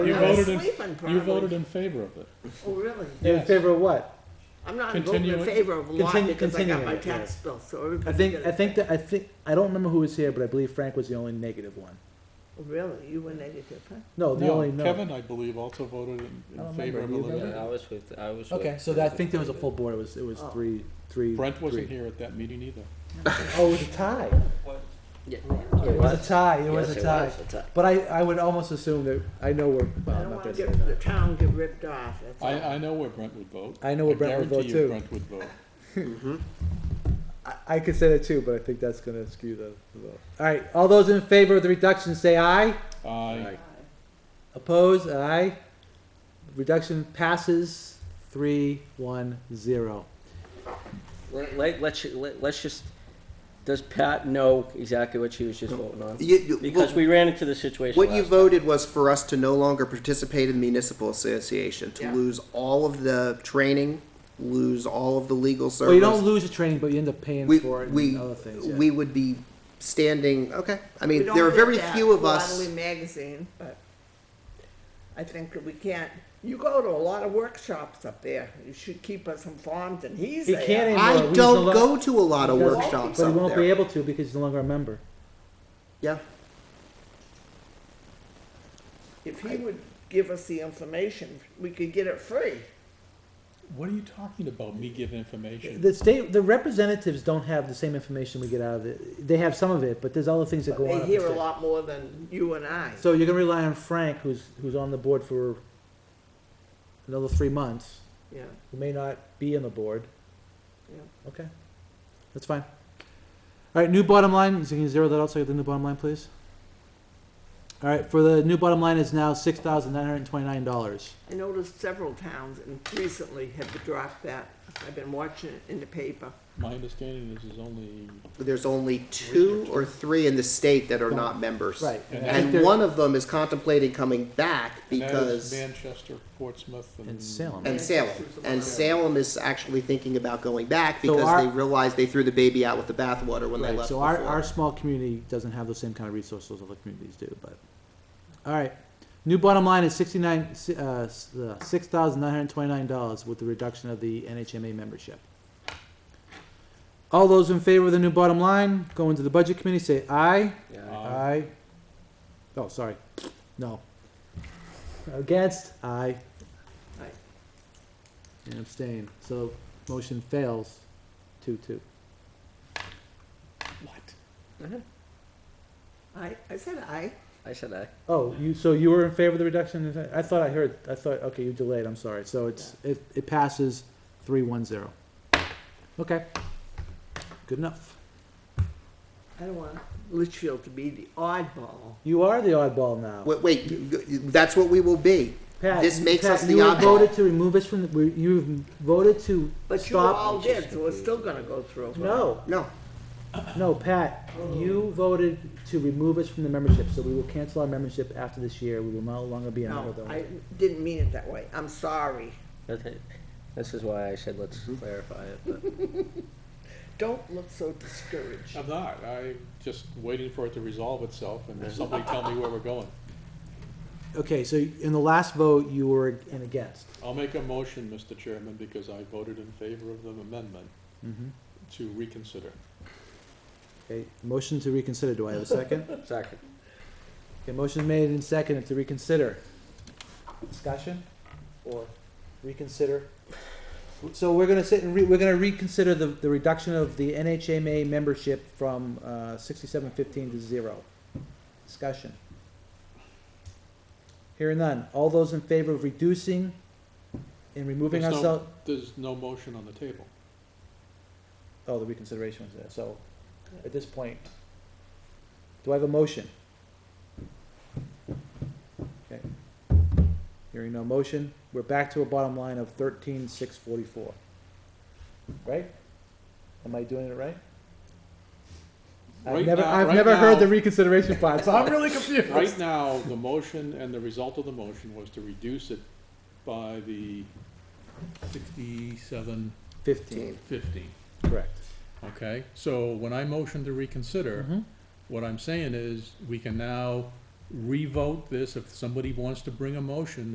You Yeah. voted Sleeping in, probably. you voted in favor of it. Oh, really? In Yes. favor of what? I'm not voting in Continue- favor of a lot continue- because I got continue my it, yeah. tax bill, so I everybody's think, gonna I think, pay. that I think, I don't remember who was here, but I believe Frank was the only negative one. Oh, Really, you were negative, huh? No, the only no. No, Kevin, I believe, also voted in, I in don't favor of remember. You voted? eliminating. Yeah, I was with, I was with. Okay, so that, I think there was a full board, it was, it was Oh. three, three. Brent wasn't three. here at that meeting either. Oh, it was a tie. Yeah. It was a tie, it was Yes, a tie. a tie. But I, I would almost assume that, I know um, we're, well, I I'm don't not wanna gonna say get, the that. town get ripped off, that's I, all. I know where Brent would vote. I know where Brent would vote, too. I guarantee you Brent would vote. I, I could say that too, but I think that's gonna skew the, the vote. All right, all those in favor of the reduction, say aye. I, Opposed, aye. Reduction passes, three, one, zero. Let, let, let's, let- let's just, does Pat know exactly what she was just voting on? You- you- Because what- we ran into the situation What you last time. voted was for us to no longer participate in the municipal association, to Yeah. lose all of the training, lose all of the legal service. Well, you don't lose the training, but you end up paying We, for it we, and other things. yeah. we would be standing, okay, I We mean, don't there are get very that few of us. Quarterly magazine, but I think that we can't, you go to a lot of workshops up there, you should keep us informed, and he's He there. can't in- I Well, he's a don't lot- go to a lot of He doesn't- workshops But he up won't be there. able to because he's no longer a member. Yeah, If he would give us the information, we could get it free. what are you talking about, me giving information? The state, the representatives don't have the same information we get out of it. They have some of it, but there's other things that go on. They up hear the a state. lot more than you and I. So you're gonna rely on Frank, who's, who's on the board for another three months, Yeah, who may not be on the board. yeah. Okay, that's fine. All right, new bottom line, so can you zero that out, so I get the new bottom line, please? All right, for the new bottom line is now six thousand nine hundred and twenty-nine dollars. I noticed several towns and recently have dropped that. I've been watching it in the paper. My understanding is there's only, there's only two or three in the state that are not members. Right. And I think And there- one of them is contemplating coming back and that is because, Manchester, Portsmouth, and. And Salem. and Salem. And Salem is actually thinking about going back So because our- they realized they threw the baby out with the bathwater when they Right, left so our, our before. small community doesn't have the same kind of resources other communities do, but, all right. New bottom line is sixty-nine, uh, six thousand nine hundred and twenty-nine dollars with the reduction of the NHMA membership. All those in favor of the new bottom line, go into the budget committee, say aye. Yeah. Aye. Aye. Oh, sorry. No. Against? Aye. Aye. And abstain. So motion fails. Two, two. I, I said I. I said aye. Oh, you, so you were in favor of the reduction? in- I thought I heard, I thought, okay, you delayed, I'm sorry. So it's, it, it passes three, one, zero. Okay. Good enough. I don't want Litchfield to be the oddball. You are the oddball now. Wait, wait, you- you- that's what we will be. Pat, this makes Pat, us the you have oddball. voted to remove us from, the. you voted to But you all stop. did, so it's still gonna go through. No. No, No, Pat, you voted to remove us from the membership, so we will cancel our membership after this year. We will no longer be a member No, of the. I didn't mean it that way. I'm sorry. Okay. This is why I said let's clarify it, but. Don't look so discouraged. I'm not, I'm just waiting for it to resolve itself and somebody tell me where we're going. Okay, so in the last vote, you were in against. I'll make a motion, Mr. Chairman, because I voted in favor of the amendment Mm-hmm. to reconsider. Okay, motion to reconsider. Do I have a second? Second. Okay, motion made and seconded to reconsider. Discussion or reconsider? So we're gonna sit and re, we're gonna reconsider the, the reduction of the NHMA membership from, uh, sixty-seven fifteen to zero. Discussion. Hearing none. All those in favor of reducing and removing There's no- ourselves, There's no motion on the table. oh, the reconsideration was there, so at this point, do I have a motion? Okay. Hearing no motion, we're back to a bottom line of thirteen six forty-four. Right? Am I doing it right? I've Right never, now- I've right never heard now- the reconsideration part, so I'm really confused. Right now, the motion and the result of the motion was to reduce it by the sixty-seven Fifteen, fifty, correct. okay? So when I motion to reconsider, Mhm. what I'm saying is, we can now revote this if somebody wants to bring a motion